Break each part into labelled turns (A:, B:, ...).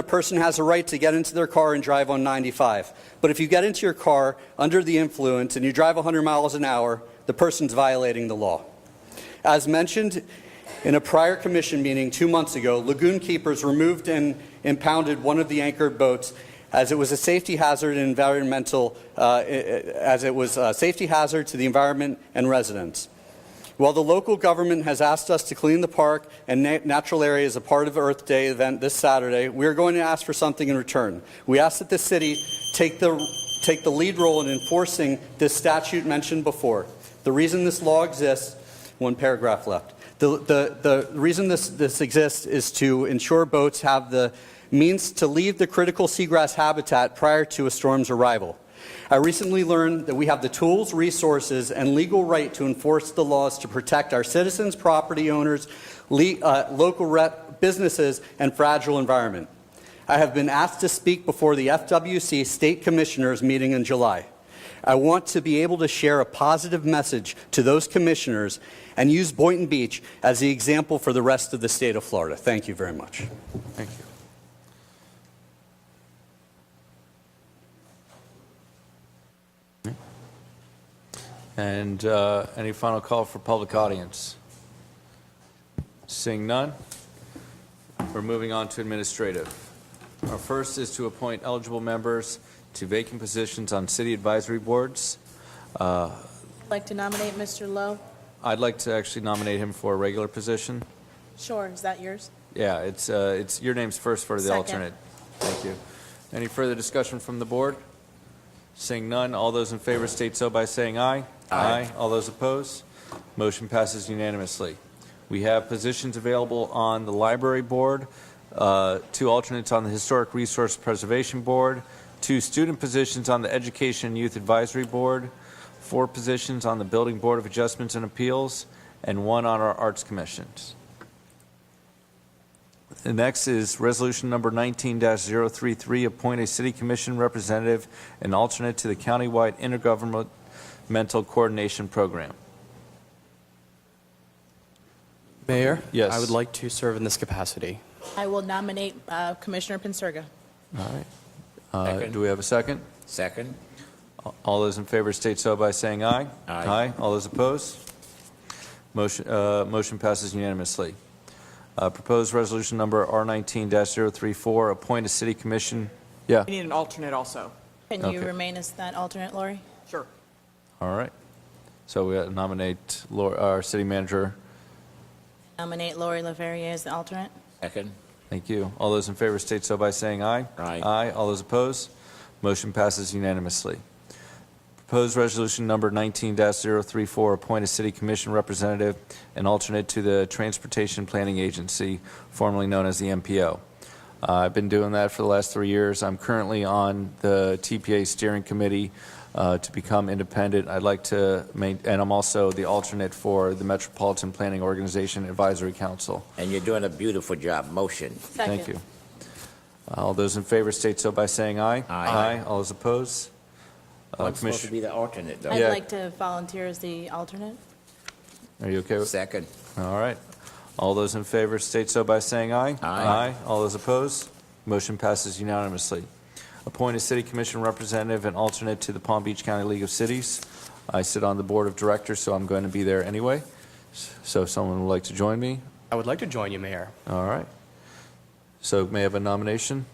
A: a person has a right to get into their car and drive on 95. But if you get into your car under the influence and you drive 100 miles an hour, the person's violating the law. As mentioned in a prior commission meeting two months ago, lagoon keepers removed and impounded one of the anchored boats as it was a safety hazard and environmental, uh, i- i- as it was a safety hazard to the environment and residents. While the local government has asked us to clean the park and na- natural area as a part of Earth Day event this Saturday, we are going to ask for something in return. We ask that the city take the, take the lead role in enforcing this statute mentioned before. The reason this law exists, one paragraph left. The, the, the reason this, this exists is to ensure boats have the means to leave the critical seagrass habitat prior to a storm's arrival. I recently learned that we have the tools, resources, and legal right to enforce the laws to protect our citizens, property owners, le- uh, local rep- businesses, and fragile environment. I have been asked to speak before the FWC State Commissioners meeting in July. I want to be able to share a positive message to those commissioners and use Boynton Beach as the example for the rest of the state of Florida. Thank you very much.
B: Thank you. And uh, any final call for public audience? Seeing none, we're moving on to administrative. Our first is to appoint eligible members to vacant positions on city advisory boards.
C: I'd like to nominate Mr. Lowe.
B: I'd like to actually nominate him for a regular position.
C: Sure, is that yours?
B: Yeah, it's, uh, it's, your name's first for the
C: Second.
B: alternate. Thank you. Any further discussion from the board? Seeing none, all those in favor state so by saying aye. Aye. All those opposed? Motion passes unanimously. We have positions available on the library board, uh, two alternates on the Historic Resource Preservation Board, two student positions on the Education and Youth Advisory Board, four positions on the Building Board of Adjustments and Appeals, and one on our Arts Commissions. The next is Resolution Number 19-033, appoint a city commission representative and alternate to the countywide intergovernmental coordination program.
D: Mayor?
B: Yes.
D: I would like to serve in this capacity.
C: I will nominate uh, Commissioner Pincirga.
B: All right. Uh,
E: Second.
B: Do we have a second?
E: Second.
B: All those in favor state so by saying aye.
E: Aye.
B: All those opposed? Motion uh, motion passes unanimously. Uh, Proposed Resolution Number R19-034, appoint a city commission, yeah,
F: We need an alternate also.
C: Can you
B: Okay.
C: remain as that alternate, Lori?
F: Sure.
B: all right. So we nominate Laura- our city manager,
C: Nominate Lori Leverrier as the alternate?
E: Second.
B: Thank you. All those in favor state so by saying aye.
E: Aye.
B: Aye. All those opposed? Motion passes unanimously. Proposed resolution number 19-034, appoint a city commission representative and alternate to the Transportation Planning Agency, formerly known as the MPO. Uh, I've been doing that for the last three years. I'm currently on the TPA Steering Committee uh, to become independent. I'd like to, main- and I'm also the alternate for the Metropolitan Planning Organization Advisory Council.
E: And you're doing a beautiful job. Motion.
B: Thank you. All those in favor state so by saying aye.
E: Aye.
B: All those opposed? Uh,
E: I'm supposed to
B: Commissioner,
E: be the alternate, though.
C: I'd
B: Yeah.
C: like to volunteer as the alternate.
B: are you okay with?
E: Second.
B: All right. All those in favor state so by saying aye.
E: Aye.
B: All those opposed? Motion passes unanimously. Appoint a city commission representative and alternate to the Palm Beach County League of Cities. I sit on the board of directors, so I'm going to be there anyway. So if someone would like to join me,
D: I would like to join you, Mayor.
B: all right. So may I have a nomination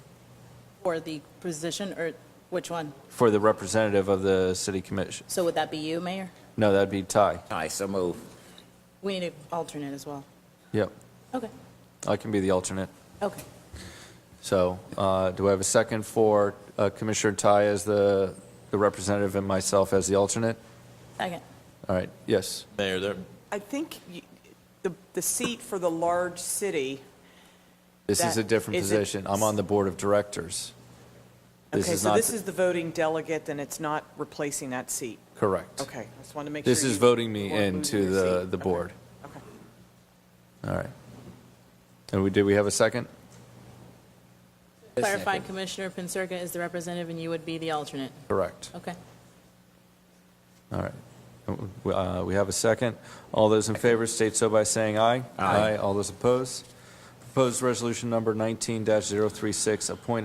C: Or the position, or which one?
B: for the representative of the city commission?
C: So would that be you, Mayor?
B: No, that'd be Ty.
E: Aye, so move.
C: We need an alternate as well.
B: Yep.
C: Okay,
B: I can be the alternate.
C: okay.
B: So uh, do I have a second for uh, Commissioner Ty as the the representative and myself as the alternate?
C: Second.
B: All right, yes.
G: Mayor, there,
F: I think you- the, the seat for the large city,
B: This is a
F: That-
B: different
F: is it-
B: position. I'm on the Board of Directors. This
F: okay,
B: is
F: so
B: not,
F: this is the voting delegate, and it's not replacing that seat.
B: correct.
F: Okay, I just wanted to make sure.
B: This is
F: you
B: voting me
F: weren't losing
B: into
F: your
B: the
F: seat.
B: the
F: Okay,
B: board.
F: Okay.
B: All right. And we, did we have a second?
C: Clarify Commissioner Pincirga is the representative and you would be the alternate.
B: Correct.
C: Okay.
B: All right. Uh, We have a second. All those in favor state so by saying aye.
E: Aye.
B: All those opposed? Proposed resolution number 19-036, appoint a